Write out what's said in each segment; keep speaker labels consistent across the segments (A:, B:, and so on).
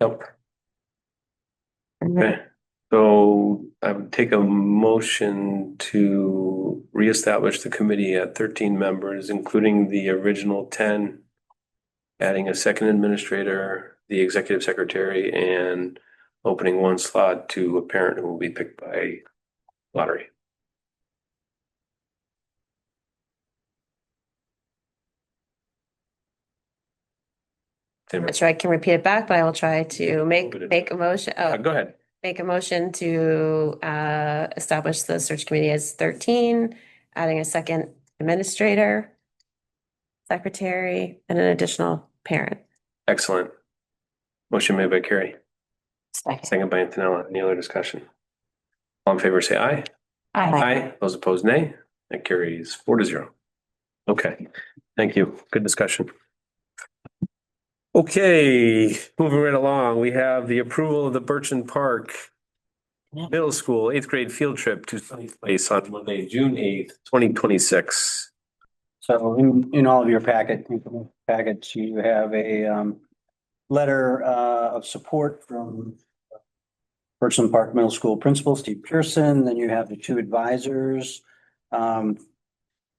A: Nope. Okay, so I would take a motion to reestablish the committee at thirteen members, including the original ten. Adding a second administrator, the executive secretary, and opening one slot to a parent who will be picked by lottery.
B: I'm not sure I can repeat it back, but I will try to make,
A: Put it-
B: make a motion,
A: Uh,
B: oh,
A: Go ahead.
B: make a motion to, uh, establish the search committee as thirteen, adding a second administrator, secretary, and an additional parent.
A: Excellent. Motion made by Carrie,
C: Second.
A: second by Antonella. Any other discussion? All in favor, say aye.
C: Aye.
A: Aye. Those opposed, nay. That carries four to zero. Okay, thank you. Good discussion. Okay, moving right along, we have the approval of the Burchin Park
C: Yeah.
A: Middle School eighth grade field trip to Sunny Place on Monday, June eighth, twenty twenty-six.
D: So in, in all of your packet, packets, you have a, um, letter, uh, of support from Burson Park Middle School Principal Steve Pearson, then you have the two advisors, um,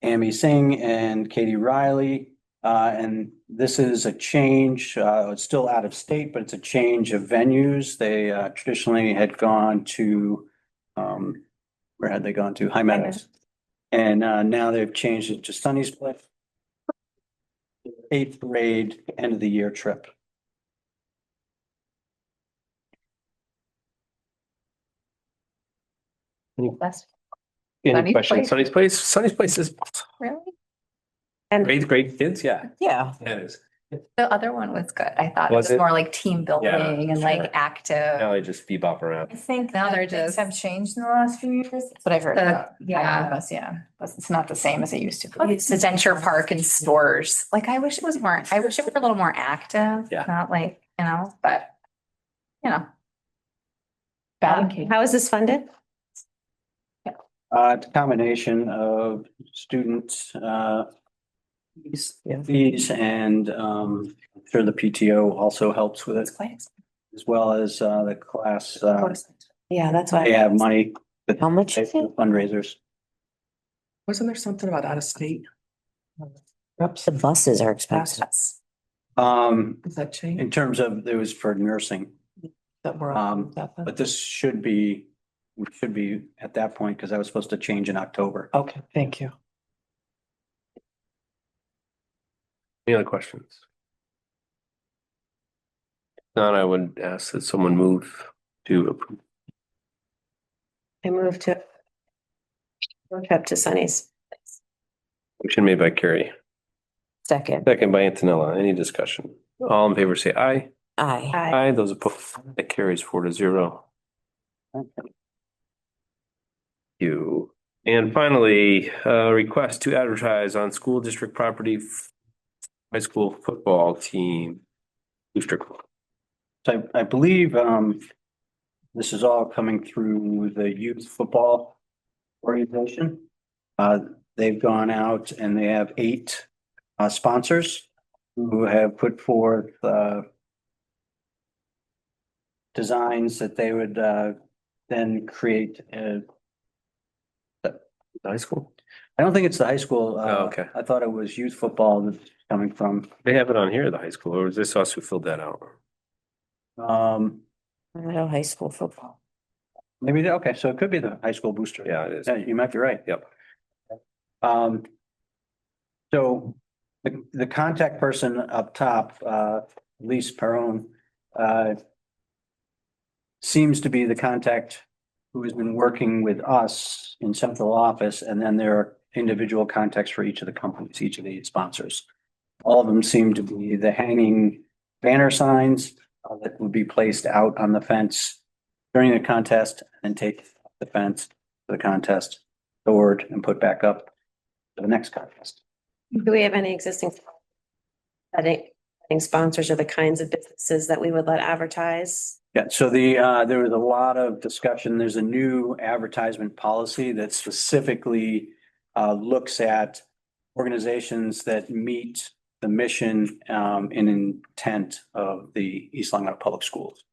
D: Amy Singh and Katie Riley. Uh, and this is a change, uh, it's still out of state, but it's a change of venues. They, uh, traditionally had gone to, um, where had they gone to? High Meadows. And uh, now they've changed it to Sunny's Cliff. Eighth grade, end of the year trip.
C: That's
D: Any
C: Sunny's
D: questions?
C: Place?
A: Sunny's Place, Sunny's Place is
C: really,
B: And
A: eighth grade kids, yeah.
C: yeah.
A: That is.
C: The other one was good. I thought it
A: Was
C: was
A: it?
C: more like team building and
A: sure.
C: like active.
A: Now they just bebop around.
E: I think
C: Now
E: now
C: they're
E: they're things
C: just-
E: have changed in the last few years. That's what I've heard.
C: The-
E: about.
C: yeah.
E: Yes, Yeah, It's it's not the same as it used to be.
C: It's adventure park and stores. Like I wish it was more, I wish it were a little more active,
A: Yeah.
C: not like, you know, but. You know,
B: um,
E: Bad.
B: how is this funded?
D: Uh, it's a combination of student uh. Fees and um, I'm sure the PTO also helps with it
E: It's quite expensive.
D: as well as uh, the class, uh,
B: Yeah, that's why.
D: they have money,
B: How much
D: they
B: is it?
D: do fundraisers.
F: Wasn't there something about out of state?
G: The buses are expensive.
C: that's,
D: Um,
F: Is that change
D: in terms of, it was for nursing.
F: that we're
D: Um,
F: on? that then?
D: But this should be, we should be at that point, because I was supposed to change in October.
F: Okay, thank you.
A: Any other questions? Not, I would ask that someone move to approve.
B: I moved to road trip to Sunny's.
A: Motion made by Carrie,
G: Second,
A: second by Antonella. Any discussion? All in favor, say aye.
G: aye.
B: Hi.
A: Aye, those opposed, that carries four to zero. You. And finally, uh, request to advertise on school district property f- high school football team. Booster club.
D: So I, I believe, um, this is all coming through the youth football organization. Uh, they've gone out and they have eight, uh, sponsors who have put forth, uh, designs that they would, uh, then create, uh,
A: high school.
D: I don't think it's the high school. uh,
A: Oh, okay.
D: I thought it was youth football that's coming from,
A: They have it on here, the high school, or is this us who filled that out?
D: um,
G: Middle high school football.
D: Maybe, they- okay, so it could be the high school booster.
A: Yeah, it is.
D: Yeah, you might be right.
A: Yep.
D: Um, so the, the contact person up top, uh, Lise Peron, uh, seems to be the contact who has been working with us in central office, and then there are individual contacts for each of the companies, each of the sponsors. All of them seem to be the hanging banner signs uh, that would be placed out on the fence during the contest and take the fence for the contest, stored and put back up for the next contest.
B: Do we have any existing setting setting sponsors or the kinds of businesses that we would let advertise?
D: Yeah, so the, uh, there was a lot of discussion. There's a new advertisement policy that specifically uh, looks at organizations that meet the mission um and intent of the East Long Meadow Public Schools.